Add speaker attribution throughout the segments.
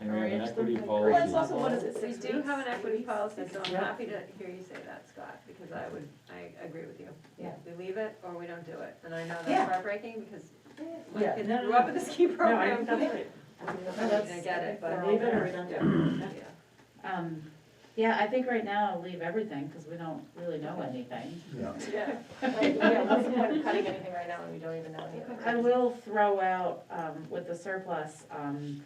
Speaker 1: an
Speaker 2: encourage them.
Speaker 1: equity
Speaker 2: to
Speaker 1: policy.
Speaker 2: encourage
Speaker 3: That's also one of the
Speaker 2: people.
Speaker 3: six
Speaker 2: We do
Speaker 3: weeks,
Speaker 2: have an equity
Speaker 3: weeks.
Speaker 2: policy, so I'm
Speaker 3: Yeah.
Speaker 2: happy to hear you say that, Scott, because I would, I agree with you.
Speaker 3: Yeah.
Speaker 2: We leave it or we don't do it, and I know
Speaker 3: Yeah.
Speaker 2: that's heartbreaking because my
Speaker 3: Yeah,
Speaker 2: kids
Speaker 3: no, no,
Speaker 2: grew up
Speaker 3: no.
Speaker 2: with a ski
Speaker 3: No, I
Speaker 2: program.
Speaker 3: think that's right.
Speaker 2: I mean, I get it, but.
Speaker 3: Leave it or we don't do
Speaker 2: Yeah,
Speaker 3: it.
Speaker 4: Um, yeah, I think right now I'll leave everything, because we don't really know anything.
Speaker 5: Yeah.
Speaker 2: yeah.
Speaker 6: Like, yeah, what's the point of cutting anything right now when we don't even know any of it?
Speaker 4: I will throw out, um, with the surplus, um,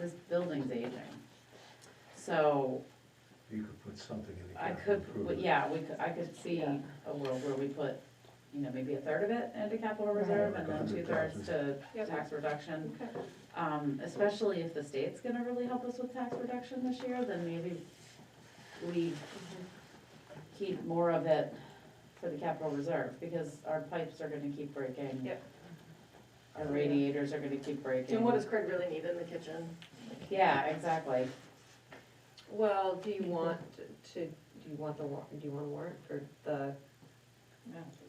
Speaker 4: this building's aging. So
Speaker 5: You could put something in the
Speaker 4: I
Speaker 5: capital
Speaker 4: could,
Speaker 5: improvement.
Speaker 4: yeah, we could, I could see
Speaker 3: Yeah.
Speaker 4: a world where we put, you know, maybe a third of it into capital
Speaker 3: Right.
Speaker 4: reserve and
Speaker 5: Like
Speaker 4: then two thirds to
Speaker 2: Yep.
Speaker 4: tax reduction.
Speaker 2: Okay.
Speaker 4: Um, especially if the state's gonna really help us with tax reduction this year, then maybe we keep more of it for the capital reserve, because our pipes are gonna keep breaking.
Speaker 2: Yep.
Speaker 4: Our radiators are gonna keep breaking.
Speaker 6: And what does Craig really need in the kitchen?
Speaker 4: Yeah, exactly.
Speaker 2: Well, do you want to, do you want the, war- do you want a warrant for the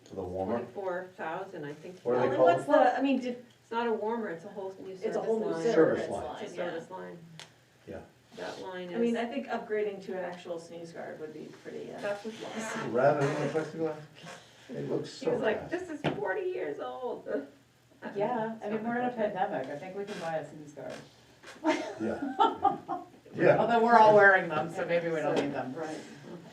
Speaker 1: To the warmer?
Speaker 2: twenty-four thousand, I think?
Speaker 1: What do they
Speaker 2: Well,
Speaker 1: call it?
Speaker 2: what's the- I mean, did- it's not a warmer, it's a whole new service line.
Speaker 6: It's a whole new
Speaker 5: service
Speaker 6: service
Speaker 5: line.
Speaker 6: line,
Speaker 2: It's a
Speaker 6: yeah.
Speaker 2: service line.
Speaker 5: Yeah.
Speaker 2: That line is.
Speaker 6: I mean, I think upgrading to an actual sneeze guard would be pretty, uh,
Speaker 2: That's what's lost.
Speaker 5: Rather than the plexiglass, it looks
Speaker 2: She
Speaker 5: so
Speaker 2: was like,
Speaker 5: bad.
Speaker 2: this is forty years old.
Speaker 4: Yeah, I mean, we're in a pandemic, I think we can buy a sneeze guard.
Speaker 5: Yeah. Yeah,
Speaker 4: Although we're all wearing them, so maybe we don't need them,
Speaker 6: right.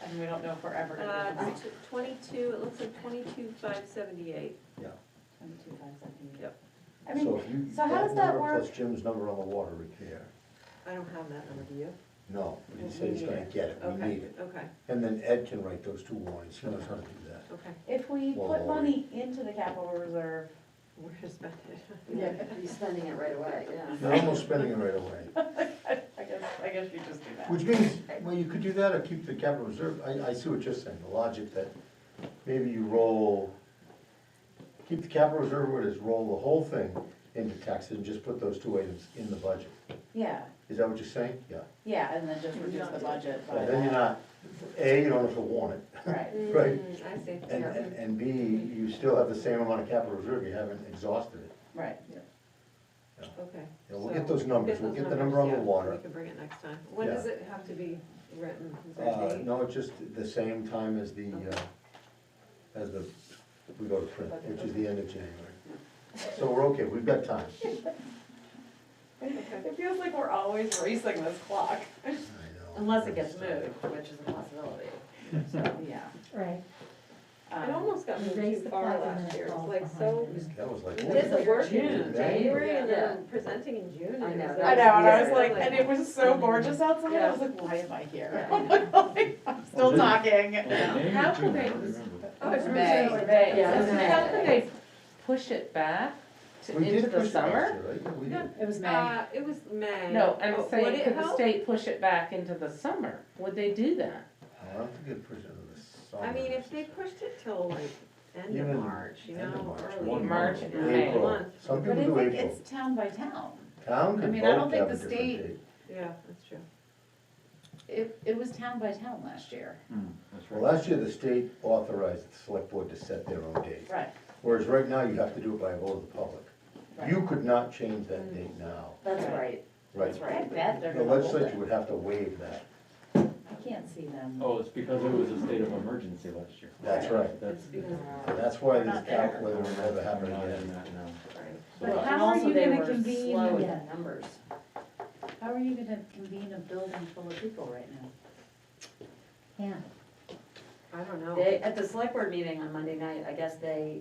Speaker 4: and we don't know if we're ever
Speaker 2: Uh,
Speaker 4: gonna need them.
Speaker 2: it's twenty-two, it looks like twenty-two, five seventy-eight.
Speaker 4: Twenty-two five seventy.
Speaker 2: Yep.
Speaker 4: I
Speaker 5: so
Speaker 4: mean,
Speaker 5: if you,
Speaker 4: so how
Speaker 5: that
Speaker 4: does that
Speaker 5: number plus
Speaker 4: work?
Speaker 5: Jim's number on the water repair,
Speaker 2: I don't have that number, do you?
Speaker 5: no, he said he's gonna get it, we
Speaker 2: Okay,
Speaker 5: need it.
Speaker 2: Okay,
Speaker 5: And then Ed can write those two warnings, he knows how to do that.
Speaker 2: okay,
Speaker 4: if we
Speaker 5: Well,
Speaker 4: put money into the capital reserve,
Speaker 2: we're just spent it.
Speaker 3: Yeah, you're spending it right away,
Speaker 4: Uh-huh.
Speaker 3: yeah.
Speaker 5: You're almost spending it right away.
Speaker 4: I guess, I guess you just do that.
Speaker 5: Which means, well, you could do that or keep the capital reserve, I, I see what you're saying, the logic that maybe you roll, keep the capital reserve where it is, roll the whole thing into taxes and just put those two items in the budget.
Speaker 4: Yeah,
Speaker 5: Is that what you're saying? Yeah.
Speaker 4: yeah, and then just reduce the budget by
Speaker 5: So Then you're
Speaker 4: that,
Speaker 5: not, A, you don't have to warn it,
Speaker 4: right,
Speaker 5: Right.
Speaker 2: Mm, I see.
Speaker 5: and, and, and B, you still have the same amount of capital reserve, you haven't exhausted it.
Speaker 4: right.
Speaker 2: Okay.
Speaker 5: Yeah, we'll
Speaker 2: so
Speaker 5: get those numbers, we'll get the number on the
Speaker 2: yeah, We
Speaker 5: water.
Speaker 2: can bring it next time. When
Speaker 5: Yeah.
Speaker 2: does it have to be written? Is there a
Speaker 5: Uh,
Speaker 2: date?
Speaker 5: no, it's just the same time as the, uh, as the, we go to print, which is the end of January. So we're okay, we've got time.
Speaker 2: Okay.
Speaker 4: It feels like we're always racing this clock.
Speaker 5: I know.
Speaker 4: Unless it gets moved, which is a possibility, so, yeah.
Speaker 3: Right.
Speaker 2: It
Speaker 4: Um,
Speaker 2: almost got
Speaker 3: You
Speaker 2: moved
Speaker 3: raise
Speaker 2: too
Speaker 3: the
Speaker 2: far
Speaker 3: flag and
Speaker 2: last
Speaker 3: then it
Speaker 2: year. It was
Speaker 3: falls
Speaker 2: like
Speaker 3: behind
Speaker 2: so,
Speaker 3: it.
Speaker 5: That was like.
Speaker 2: it is a work
Speaker 5: June,
Speaker 2: in January and
Speaker 3: Yeah.
Speaker 2: then presenting in June. and
Speaker 3: I
Speaker 2: it
Speaker 3: know,
Speaker 2: was
Speaker 3: that
Speaker 4: I know, and I was
Speaker 3: Yeah.
Speaker 4: like, and it was so gorgeous outside, I was like, why am I here? I'm still talking.
Speaker 1: How could they?
Speaker 2: Oh, it's
Speaker 4: May.
Speaker 2: originally-
Speaker 4: May,
Speaker 3: yeah,
Speaker 2: It's
Speaker 3: May.
Speaker 2: May.
Speaker 3: How could they
Speaker 4: push it back
Speaker 5: We did push it last year, right? Yeah, we did.
Speaker 7: It was May.
Speaker 2: Uh, it was May.
Speaker 7: No, I'm
Speaker 2: Oh, would
Speaker 7: saying,
Speaker 2: it
Speaker 7: could the
Speaker 2: help?
Speaker 7: state push it back into the summer? Would they do that?
Speaker 5: I don't think it pushed it to the summer.
Speaker 2: I mean, if they pushed it till like end of
Speaker 5: Even
Speaker 2: March, you
Speaker 5: end of
Speaker 2: know,
Speaker 5: March,
Speaker 2: early.
Speaker 1: one
Speaker 7: March
Speaker 2: month,
Speaker 7: and
Speaker 2: yeah,
Speaker 7: May.
Speaker 5: April,
Speaker 2: month.
Speaker 5: some
Speaker 4: But
Speaker 5: people
Speaker 4: I
Speaker 5: do
Speaker 4: think
Speaker 5: April.
Speaker 4: it's town by town.
Speaker 5: Town
Speaker 4: I
Speaker 5: could
Speaker 4: mean, I
Speaker 5: vote
Speaker 4: don't
Speaker 5: to have a
Speaker 4: think the
Speaker 5: different date.
Speaker 2: Yeah, that's true.
Speaker 4: It, it was town by town last year.
Speaker 1: Hmm, That's
Speaker 5: Well,
Speaker 1: right.
Speaker 5: last year, the state authorized the select board to set their own date.
Speaker 4: Right,
Speaker 5: Whereas right now, you have to do it by a vote of the public.
Speaker 4: right.
Speaker 5: You could not change that date now,
Speaker 3: That's right.
Speaker 5: right?
Speaker 4: That's right. I bet they're
Speaker 5: The
Speaker 4: gonna hold
Speaker 5: legislature
Speaker 4: it.
Speaker 5: would have to waive that.
Speaker 4: I can't see them.
Speaker 1: Oh, it's because it was a state of emergency last year.
Speaker 5: That's right.
Speaker 1: That's.
Speaker 5: And that's why
Speaker 4: We're
Speaker 5: this
Speaker 4: not there.
Speaker 5: cap, whether it'll ever happen again.
Speaker 4: But
Speaker 1: So,
Speaker 4: how
Speaker 3: And
Speaker 4: are
Speaker 3: also
Speaker 4: you
Speaker 3: they
Speaker 4: gonna
Speaker 3: were
Speaker 4: convene-
Speaker 3: slow with the numbers.
Speaker 4: How are you gonna convene a building full of people right now?
Speaker 3: Yeah.
Speaker 2: I don't know.
Speaker 3: They, at the select board meeting on Monday night, I guess they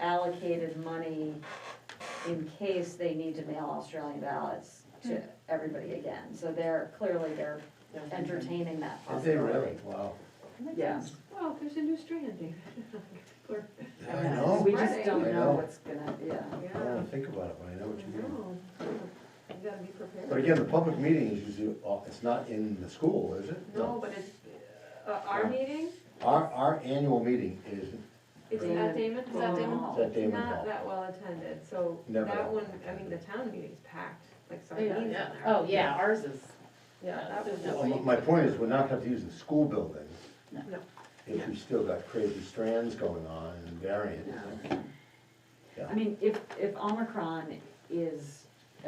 Speaker 3: allocated money in case they need to mail Australian ballots to
Speaker 4: Hmm.
Speaker 3: everybody again. So they're, clearly they're entertaining that
Speaker 5: Did they
Speaker 3: possibility.
Speaker 5: really? Wow.
Speaker 3: Yes.
Speaker 2: Well, there's a new strand, David. Or-
Speaker 5: I know.
Speaker 3: We just don't
Speaker 5: I
Speaker 3: know
Speaker 5: know.
Speaker 3: what's gonna, yeah.
Speaker 5: I don't
Speaker 2: Yeah.
Speaker 5: wanna think about it, but I know Oh, what you mean.
Speaker 2: No. You gotta be prepared.
Speaker 5: But again, the public meeting is usually, uh, it's not in the school, is it?
Speaker 2: No, but it's, uh, our meeting,
Speaker 5: Our, our annual meeting is,
Speaker 2: it's at Damon
Speaker 3: Is that Damon
Speaker 2: Hall.
Speaker 3: Hall?
Speaker 5: It's at Damon Hall.
Speaker 2: Not that well attended, so
Speaker 5: Never
Speaker 2: that
Speaker 5: that
Speaker 2: one,
Speaker 5: well
Speaker 2: I mean, the
Speaker 5: attended.
Speaker 2: town meeting's packed, like sardines in there.
Speaker 4: Oh, yeah, ours is,
Speaker 2: Yeah, that was.
Speaker 4: No,
Speaker 5: well, my- my point is, we're not gonna have to use the school building.
Speaker 4: No.
Speaker 2: No.
Speaker 5: If we still got crazy strands going on and variants.
Speaker 3: I mean, if, if Omicron is